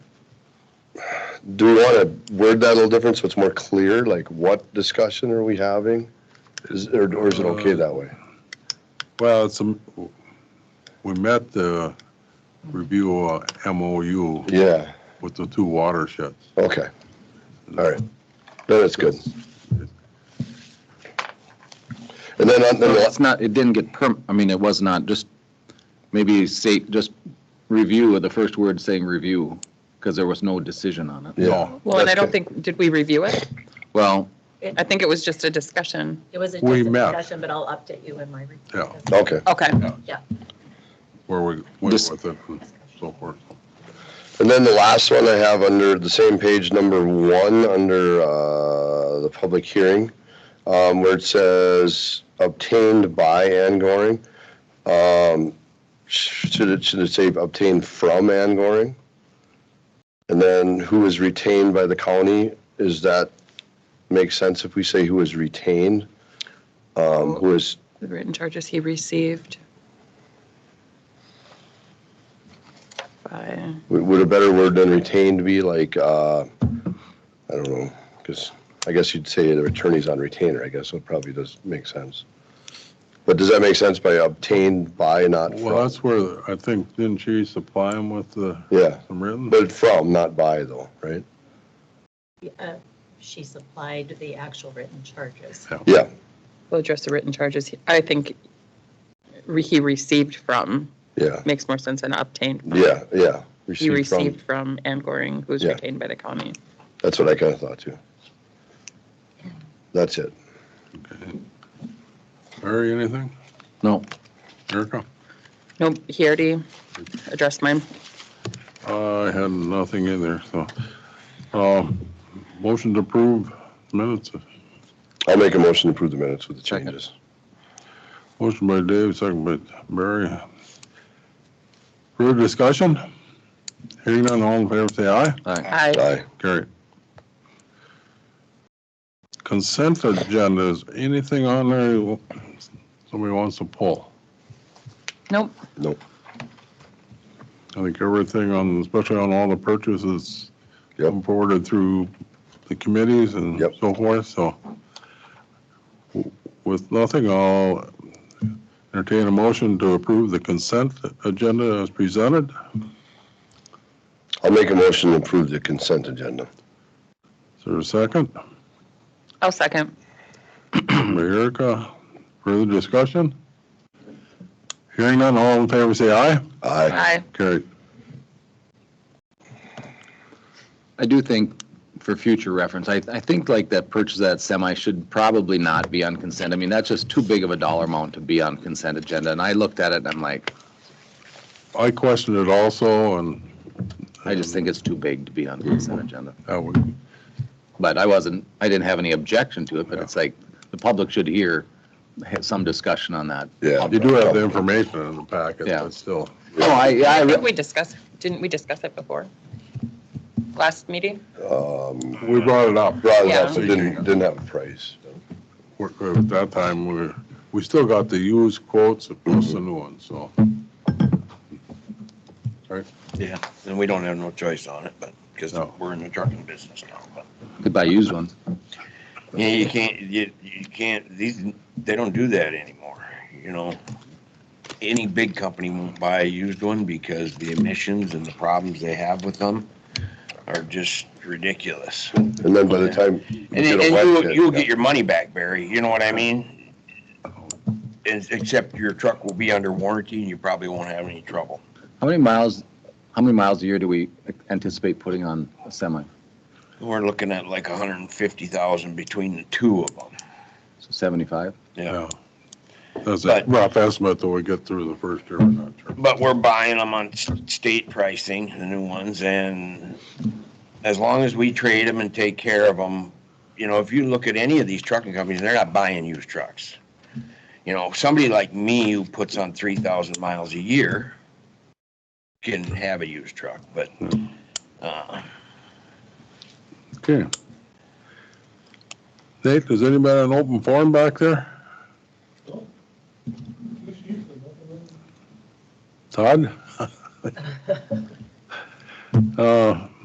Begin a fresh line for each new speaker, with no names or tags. Do we want to word that a little different so it's more clear, like what discussion are we having? Is, or or is it okay that way?
Well, it's, a- we met the review uh, MOU
Yeah,
with the two watersheds.
okay. All right. No, that's good. And then on
No,
the,
It's not, it didn't get perm, I mean, it was not, just maybe state, just review, the first word saying review, because there was no decision on it.
yeah.
Well, and I don't
That's
think, did we review it?
Well,
I think it was just a discussion.
It was a
We
just a
met.
discussion, but I'll update you in my report.
Yeah.
Okay.
Okay.
Yeah.
Where we went
This-
with it and so forth.
And then the last one I have under the same page, number one, under uh, the public hearing, um, where it says obtained by Ann Goring. Um, sh- Should it, should it say obtained from Ann Goring? And then who is retained by the county? Is that, make sense if we say who is retained? Um, Who is,
The written charges he received. By-
would- would a better word than retained be like, uh, I don't know, because I guess you'd say the attorney's on retainer, I guess, so it probably does make sense. But does that make sense by obtained by, not
Well,
from?
that's where, I think, didn't she supply him with the,
Yeah,
some written?
but from, not by though, right?
Uh, She supplied the actual written charges.
Yeah,
We'll address the written charges. he- I think re- he received from,
yeah,
makes more sense than obtained. from.
yeah, yeah.
He
from.
received from Ann Goring, who's
Yeah.
retained by the county.
That's what I kind of thought too. That's it.
Okay. Larry, anything?
no,
Erica?
Nope, he already addressed mine.
Uh, I had nothing in there, so. Um, Motion to approve minutes.
I'll make a motion to approve the minutes with the
Second.
changes.
Motion by Dave, second by Barry. Further discussion? Hearing none, all in favor, say aye.
all right.
I,
Aye.
Carry. Consent agendas, anything on there somebody wants to pull?
nope,
Nope,
I think everything on, especially on all the purchases
Yep.
come forwarded through the committees and
Yep.
so forth, so. With nothing, I'll entertain a motion to approve the consent agenda as presented.
I'll make a motion to approve the consent agenda.
Is there a second?
I'll second.
By Erica, further discussion? Hearing none, all in favor, say aye.
Aye.
I,
Carried.
I do think, for future reference, I, I think like that purchase of that semi should probably not be on consent. I mean, that's just too big of a dollar amount to be on consent agenda, and I looked at it and I'm like,
I questioned it also, and
I just think it's too big to be on consent agenda.
I would,
But I wasn't, I didn't have any objection to it, but it's like, the public should hear, have some discussion on that.
Yeah.
you do have the information in the packet,
Yeah.
but still.
No, Oh, I, yeah,
I
I, re-
think we discussed, didn't we discuss it before? Last meeting?
Um,
We brought it up.
Brought it up,
Yeah.
so didn't, didn't have a price.
We're- we're- At that time, we, were- we still got the used quotes plus the new ones, so.
Yeah, and we don't have no choice on it, but, because
No.
we're in the trucking business now, but.
could buy used ones.
Yeah, you can't, you, you can't, these, they don't do that anymore, you know? Any big company won't buy a used one because the emissions and the problems they have with them are just ridiculous. And
And then by the time.
and you'll, you'll get your money back, Barry, you know what I mean? It's- Except your truck will be under warranty and you probably won't have any trouble.
How many miles, how many miles a year do we anticipate putting on a semi?
We're looking at like hundred and fifty thousand between the two of them,
So 75?
yeah.
That's a
But-
rough estimate till we get through the first year, we're not sure.
But we're buying them on s- state pricing, the new ones, and as long as we trade them and take care of them, you know, if you look at any of these trucking companies, they're not buying used trucks. You know, somebody like me who puts on three thousand miles a year can have a used truck, but, uh,
Okay. Nate, does anybody have an open forum back there? Todd? Uh,